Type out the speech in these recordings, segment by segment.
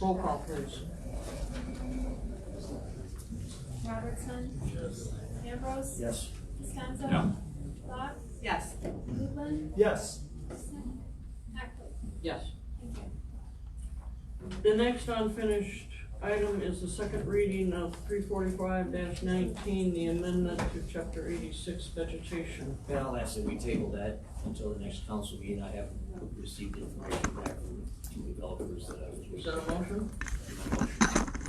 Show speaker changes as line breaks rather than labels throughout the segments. Roll call, please.
Robertson.
Yes.
Ambrose.
Yes.
Costanzo.
No.
Locke.
Yes.
Lublin.
Yes.
Hackley.
Yes.
Thank you.
The next unfinished item is the second reading of three forty-five nineteen, the amendment to chapter eighty-six vegetation.
And I'll ask that we table that until the next council meeting. I have received information back from two developers that I was.
Is that a motion?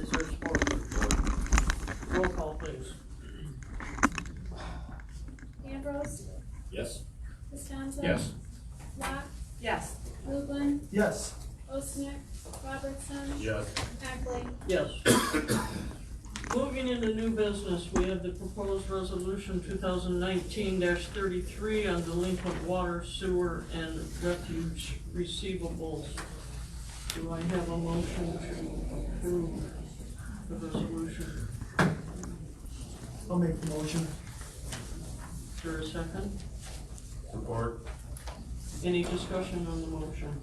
Is there support? Roll call, please.
Ambrose.
Yes.
Costanzo.
Yes.
Locke.
Yes.
Lublin.
Yes.
Osnick. Robertson.
Yes.
Hackley.
Yes. Moving into new business, we have the proposed resolution two thousand nineteen thirty-three on delinquent water, sewer, and refuge receivables. Do I have a motion to approve the resolution?
I'll make the motion.
Is there a second?
Support.
Any discussion on the motion?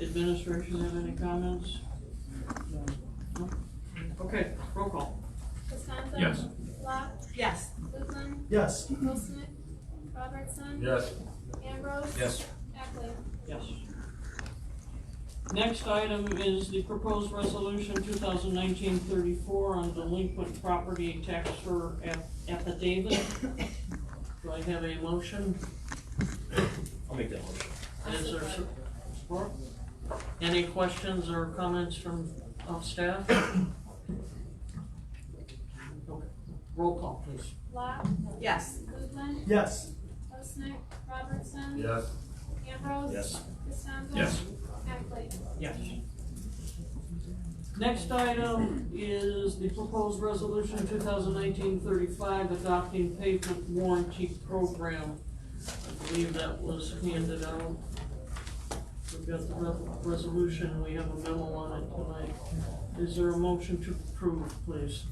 Administration have any comments? No? Okay, roll call.
Costanzo.
Yes.
Locke.
Yes.
Lublin.
Yes.
Osnick. Robertson.
Yes.
Ambrose.
Yes.
Hackley.
Yes. Next item is the proposed resolution 2019-34 on delinquent property tax for aff- affidavit. Do I have a motion?
I'll make that motion.
Is there su- support? Any questions or comments from of staff? Okay. Roll call, please.
Locke.
Yes.
Lublin.
Yes.
Osnick. Robertson.
Yes.
Ambrose.
Yes.
Costanzo.
Yes.
Hackley.
Yes. Next item is the proposed resolution 2019-35 adopting pavement warranty program. I believe that was handed out. We've got the re- resolution, we have a memo on it tonight. Is there a motion to approve, please?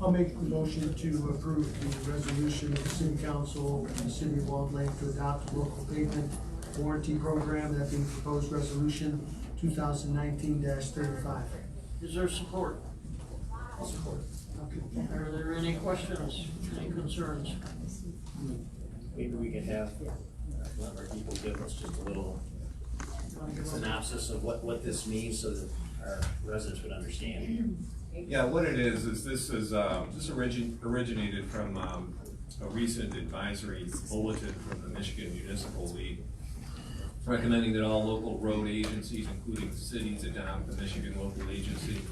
I'll make the motion to approve the resolution of the city council and the city of Wald Lake to adopt the local pavement warranty program, that being proposed resolution two thousand nineteen thirty-five.
Is there support?
Support.
Are there any questions, any concerns?
Maybe we could have uh, one of our people give us just a little synopsis of what, what this means so that our residents would understand.
Yeah, what it is, is this is, um, this origin, originated from, um, a recent advisory bulletin from the Michigan Municipal League recommending that all local road agencies, including cities, adopt the Michigan Local Agency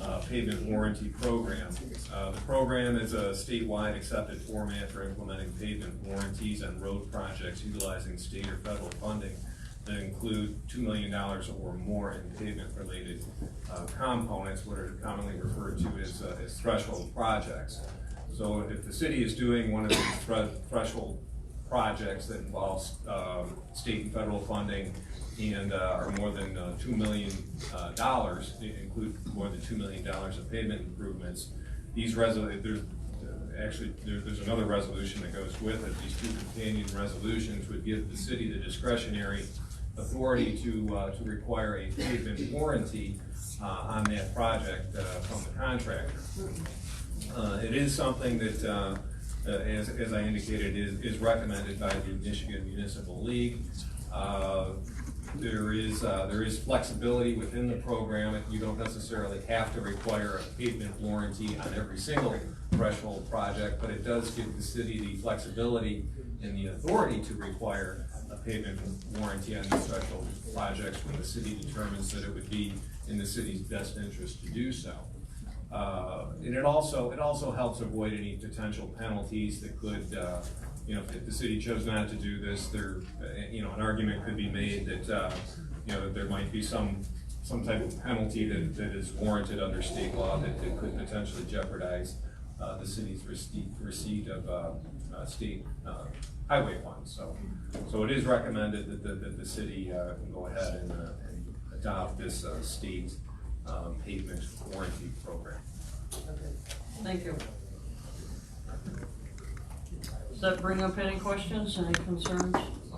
uh, Pavement Warranty Program. Uh, The program is a statewide accepted format for implementing pavement warranties on road projects utilizing state or federal funding that include two million dollars or more in pavement-related uh, components, what are commonly referred to as, uh, as threshold projects. So if the city is doing one of these thre- threshold projects that involves um, state and federal funding and uh, are more than uh, $2 million, uh, dollars, i- include more than $2 million dollars of pavement improvements. These resol, there's, uh, actually, there- there's another resolution that goes with it. These two companion resolutions would give the city the discretionary authority to, uh, to require a pavement warranty uh, on that project uh, from the contractor. Uh, It is something that, uh, uh, as, as I indicated, is, is recommended by the Michigan Municipal League. Uh, There is, uh, there is flexibility within the program. You don't necessarily have to require a pavement warranty on every single threshold project, but it does give the city the flexibility and the authority to require a pavement warranty on these threshold projects when the city determines that it would be in the city's best interest to do so. Uh, And it also, it also helps avoid any potential penalties that could, uh, you know, if the city chose not to do this, there, uh, you know, an argument could be made that, uh, you know, that there might be some, some type of penalty that, that is warranted under state law that, that could potentially jeopardize uh, the city's receipt, receipt of uh, uh, state uh, highway funds. So, so it is recommended that, the- that the city uh, can go ahead and uh, and adopt this uh, state um, pavement warranty program.
Thank you. Does that bring up any questions, any concerns?